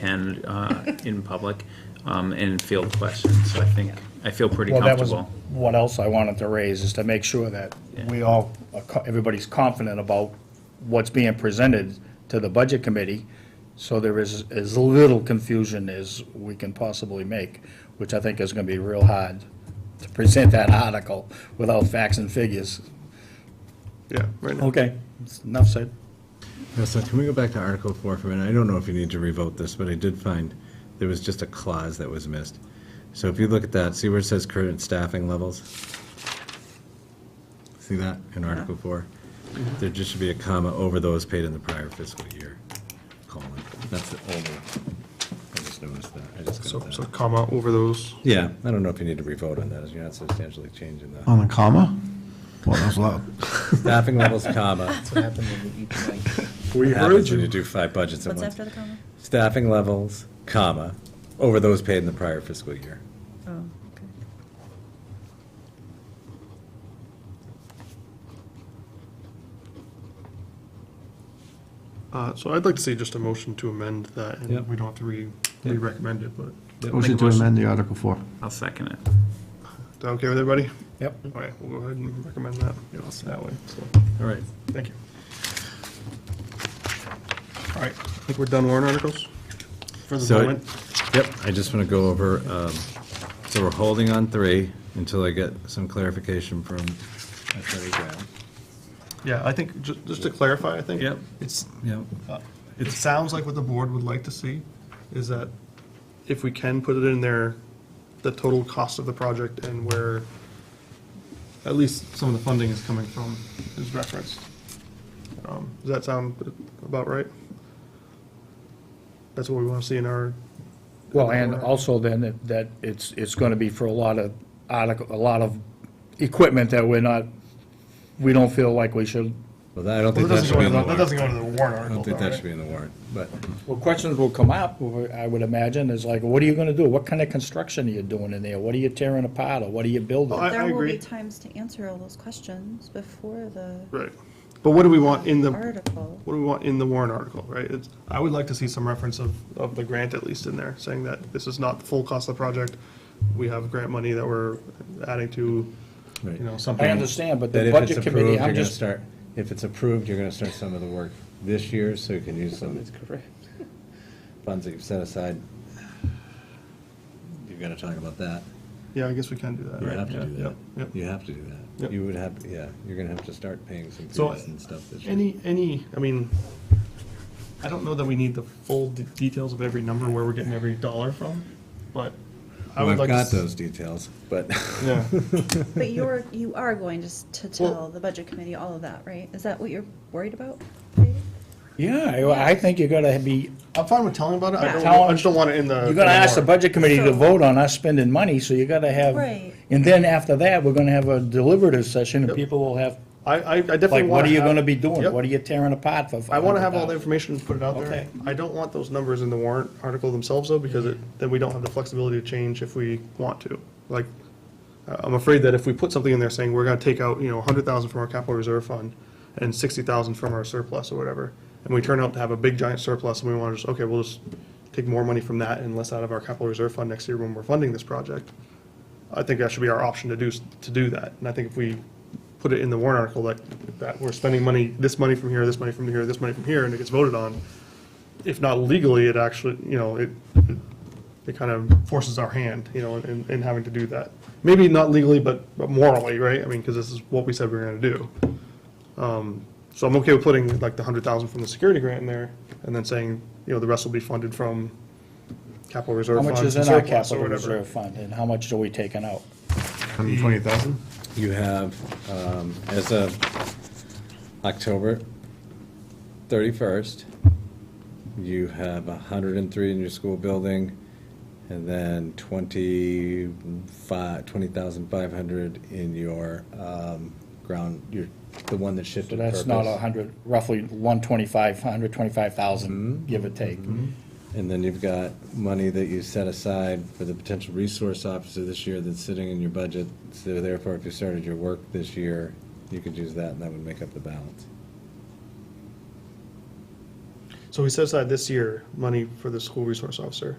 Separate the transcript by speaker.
Speaker 1: can uh, in public um, and field questions. So I think, I feel pretty
Speaker 2: Well, that was
Speaker 1: comfortable.
Speaker 2: what else I wanted to raise, is to make sure that we all, are co- everybody's confident about what's being presented to the budget committee, so there is as little confusion as we can possibly make, which I think is gonna be real hard, to present that article without facts and figures.
Speaker 3: Yeah, right now.
Speaker 2: Okay, enough said.
Speaker 4: Now, so can we go back to Article 4 for a minute? I don't know if you need to revote this, but I did find there was just a clause that was missed. So if you look at that, see where it says current staffing levels? See that in Article 4?
Speaker 5: Mm-hmm.
Speaker 4: There just should be a comma over those paid in the prior fiscal year, colon. That's the older. I just noticed that. I just
Speaker 3: So,
Speaker 4: got
Speaker 3: so
Speaker 4: that.
Speaker 3: comma over those.
Speaker 4: Yeah, I don't know if you need to revote on that, as you're not substantially changing that.
Speaker 6: On a comma? Well, that's loud.
Speaker 4: Staffing levels, comma.
Speaker 5: That's what happened E when we eat tonight.
Speaker 3: We heard
Speaker 4: Happens when you
Speaker 3: you.
Speaker 4: do five budgets at once.
Speaker 7: What's after the comma?
Speaker 4: staffing levels, comma, over those paid in the prior fiscal year.
Speaker 7: Oh, okay.
Speaker 3: Uh, so I'd like to see just a motion to amend that, and
Speaker 4: Yep.
Speaker 3: we don't have to re,
Speaker 4: Yep.
Speaker 3: re-recommend it, but.
Speaker 4: Yep.
Speaker 3: Make a
Speaker 6: Motion to
Speaker 3: motion.
Speaker 6: amend the Article 4.
Speaker 1: I'll second it.
Speaker 3: Is that okay with everybody?
Speaker 2: Yep.
Speaker 3: All right, we'll go ahead and recommend that, you know, that way, so,
Speaker 4: All right.
Speaker 3: thank you. All right, I think we're done warrant articles for the
Speaker 4: So,
Speaker 3: moment.
Speaker 4: yep, I just want to go over, um, so we're holding on three until I get some clarification from Attorney Brown.
Speaker 3: Yeah, I think, ju- just to clarify, I think.
Speaker 4: Yep.
Speaker 3: It's,
Speaker 4: Yep.
Speaker 3: Uh, It sounds like what the board would like to see is that if we can put it in there, the total cost of the project and where at least some of the funding is coming from is referenced. Um, Does that sound about right? That's what we want to see in our,
Speaker 2: Well, and also then that- that it's, it's going to be for a lot of article, a lot of equipment that we're not, we don't feel like we should.
Speaker 4: Well, that- I don't
Speaker 3: that
Speaker 4: think that
Speaker 3: doesn't
Speaker 4: should
Speaker 3: go
Speaker 4: be in
Speaker 3: into, the-
Speaker 4: the
Speaker 3: that
Speaker 4: warrant.
Speaker 3: doesn't go into the warrant
Speaker 4: I
Speaker 3: article.
Speaker 4: don't think
Speaker 3: though,
Speaker 4: that
Speaker 3: right?
Speaker 4: should be in the warrant, but,
Speaker 2: Well, questions will come up, I would imagine, is like, what are you going to do? What kind of construction are you doing in there? What are you tearing apart or what are you building?
Speaker 3: I- I
Speaker 7: There will
Speaker 3: agree.
Speaker 7: be times to answer all those questions before the
Speaker 3: Right. But what do we want in the,
Speaker 7: article.
Speaker 3: what do we want in the warrant article, right? It's, I would like to see some reference of, of the grant at least in there, saying that this is not the full cost of the project. We have grant money that we're adding to, you know,
Speaker 4: right.
Speaker 2: I
Speaker 3: something.
Speaker 2: understand, but
Speaker 4: That
Speaker 2: the
Speaker 4: if it's
Speaker 2: budget committee,
Speaker 4: approved, you're
Speaker 2: I'm
Speaker 4: gonna
Speaker 2: just,
Speaker 4: start, if it's approved, you're gonna start some of the work this year, so you can use some
Speaker 5: correct.
Speaker 4: funds that you've set aside. You're gonna talk about that.
Speaker 3: Yeah, I guess we can do that,
Speaker 4: You
Speaker 3: right?
Speaker 4: have to do
Speaker 3: Yeah,
Speaker 4: that.
Speaker 3: yeah,
Speaker 4: You
Speaker 3: yeah.
Speaker 4: have to do
Speaker 3: Yep.
Speaker 4: that. You would have, yeah, you're gonna have to start paying some
Speaker 3: So,
Speaker 4: fees and stuff this year.
Speaker 3: Any, any, I mean, I don't know that we need the full de- details of every number where we're getting every dollar from, but I
Speaker 4: Well,
Speaker 3: would
Speaker 4: I've
Speaker 3: like to.
Speaker 4: got
Speaker 3: s-
Speaker 4: those details, but
Speaker 3: Yeah,
Speaker 7: But you're, you are going to, s- to
Speaker 3: Well-
Speaker 7: tell the budget committee all of that, right? Is that what you're worried about?
Speaker 2: yeah, I I think you're going to be,
Speaker 3: I'm fine with telling about it. I
Speaker 7: Yeah.
Speaker 3: don't, I just don't want it in the.
Speaker 2: you're going to ask the
Speaker 3: warrant.
Speaker 2: budget committee to vote on us spending money, so you got to have.
Speaker 7: Right.
Speaker 2: And then after that, we're going to have a deliberative session and people will have
Speaker 3: I, I I
Speaker 2: Like,
Speaker 3: definitely want.
Speaker 2: what are you gonna be doing?
Speaker 3: Yep.
Speaker 2: What are you tearing apart for?
Speaker 3: I want to have all the information and put it out there.
Speaker 2: Okay.
Speaker 3: I don't want those numbers in the warrant article themselves, though, because it, then we don't have the flexibility to change if we want to. Like, I- I'm afraid that if we put something in there saying we're gonna take out, you know, a hundred thousand from our capital reserve fund and sixty thousand from our surplus or whatever, and we turn out to have a big giant surplus and we want to just, okay, we'll just take more money from that and less out of our capital reserve fund next year when we're funding this project. I think that should be our option to do, s- to do that. And I think if we put it in the warrant article that, that we're spending money, this money from here, this money from here, this money from here, and it gets voted on, if not legally, it actually, you know, it, it kind of forces our hand, you know, in, in having to do that. Maybe not legally, but but morally, right? I mean, because this is what we said we were gonna do. Um, So I'm okay with putting like the hundred thousand from the security grant in there, and then saying, you know, the rest will be funded from capital reserve
Speaker 2: How
Speaker 3: funds.
Speaker 2: much is in our
Speaker 3: surplus or
Speaker 2: capital
Speaker 3: whatever.
Speaker 2: reserve fund and how much are we taking out?
Speaker 6: 120,000?
Speaker 4: you have, um, as of October thirty-first, you have hundred and three in your school building, and then twenty-five, twenty thousand five hundred in your, um, ground, your, the one that
Speaker 2: So
Speaker 4: shifted purpose.
Speaker 2: that's not a hundred, roughly one twenty-five, hundred twenty-five
Speaker 4: Mm-hmm.
Speaker 2: thousand, give or take.
Speaker 4: And then you've got money that you set aside for the potential resource officer this year that's sitting in your budget. So therefore, if you started your work this year, you could use that and that would make up the balance.
Speaker 3: So we set aside this year money for the school resource officer.